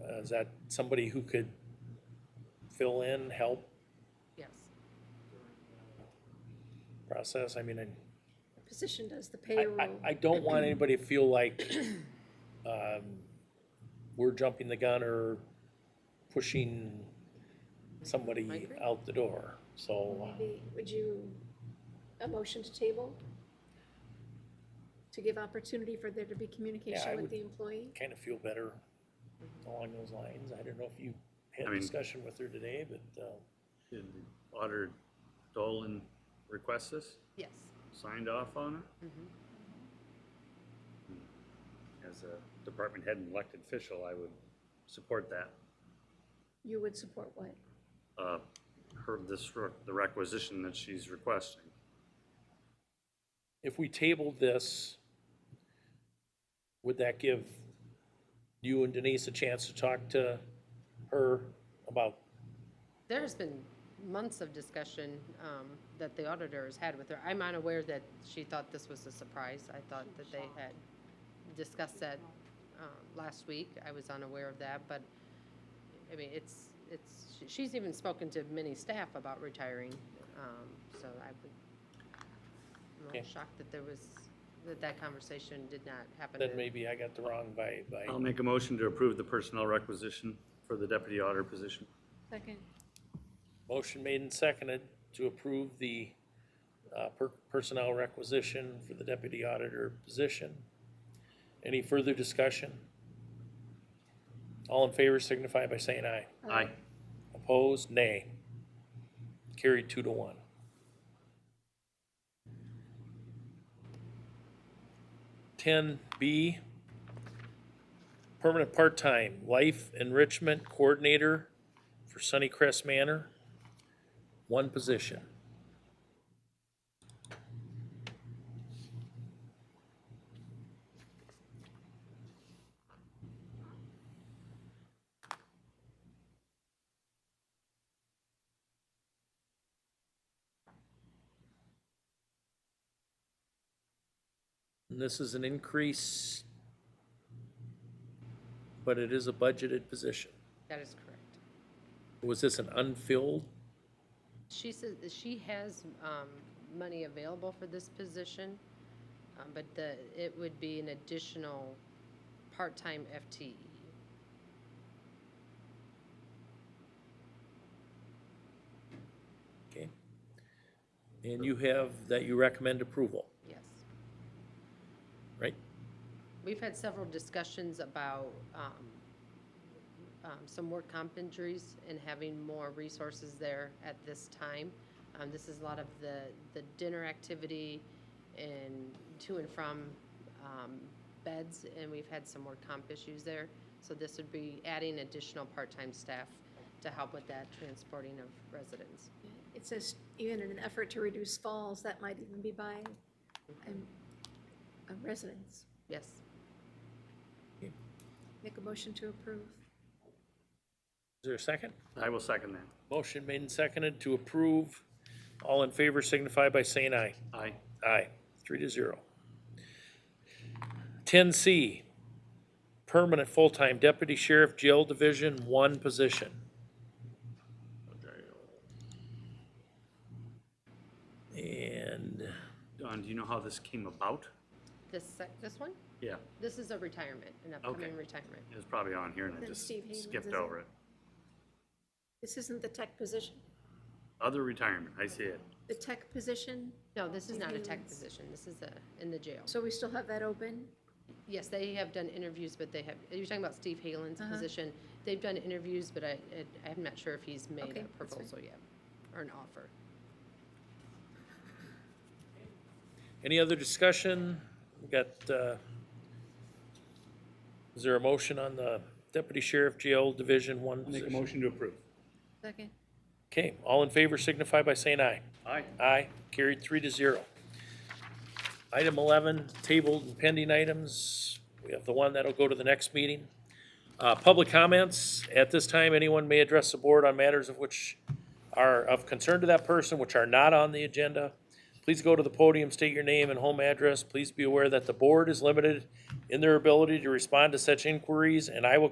Uh, Is that somebody who could fill in, help Yes. process? I mean, I- The Position does the I, payroll. I, I don't want anybody to feel like, um, we're jumping the gun or pushing somebody Migrate? out the door, so. uh, Maybe- Would you, a motion to table? To give opportunity for there to be Yeah, I communication with would- the employee? kind of feel better along those lines. I don't know if you had a I mean- discussion with her today, but, uh, Did the Auditor Dolan request this, Yes. signed off on it? Mhm. As a department head and elected official, I would support that. You would support what? Uh, Her, this, re- the requisition that she's requesting. if we tabled this, would that give you and Denise a chance to talk to her about, There's been months of discussion um, that the auditor has had with her. I'm unaware that she thought this was a surprise. I thought that they had discussed that um, last week. I was unaware of that, but, I mean, it's, it's, she- she's even spoken to many staff about retiring, um, so I would, I'm a Okay. little shocked that there was, that that conversation did not happen. then in- maybe I got the wrong by, by, I'll make a motion to approve the personnel requisition for the deputy auditor position. Second. motion made and seconded to approve the uh, per- personnel requisition for the deputy auditor position. Any further discussion? All in favor signify by saying aye. Aye. Opposed, nay. Carried two to one. Ten B, permanent part-time life enrichment coordinator for Sunnycrest Manor, one position. And this is an increase, but it is a budgeted position. That is correct. Was this an unfilled? She says, that she has um, money available for this position, um, but the, it would be an additional part-time E. FTE. Okay. And you have, that you recommend approval, Yes. right? We've had several discussions about um, um, some work comp injuries and having more resources there at this time. Um, This is a lot of the, the dinner activity and to and from um, beds, and we've had some work comp issues there. So this would be adding additional part-time staff to help with that transporting of residents. It says, even in an effort to reduce falls, that might even be by um, um, residents. Yes, Make a motion to approve. Is there a second? I will second that. Motion made and seconded to approve. All in favor signify by saying aye. Aye. Aye, three to zero. Ten C, permanent full-time deputy sheriff jail division one position. uh, And Don, do you know how this came about? this, sec- this one, Yeah, this is a retirement, an Okay. upcoming retirement. it was probably on here and I Then just Steve Hayden's, skipped is it? over it. This isn't the tech position. Other retirement, I see it. The tech position, No, this is not a tech Surveillance. position, this is a, in the jail. so we still have that open? Yes, they have done interviews, but they have, you're talking about Steve Halen's Uh-huh. position. They've done interviews, but I, I- I'm not sure if he's Okay, made a that's fine. proposal yet, or an offer. any other discussion? We got, uh, is there a motion on the deputy sheriff jail division one Make a position? motion to approve. Second. Okay, all in favor signify by saying aye. Aye. Aye, carried three to zero. Item eleven, tabled and pending items. We have the one that'll go to the next meeting. Uh, public comments. At this time, anyone may address the board on matters of which are of concern to that person, which are not on the agenda. Please go to the podium, state your name and home address. Please be aware that the board is limited in their ability to respond to such inquiries, and I will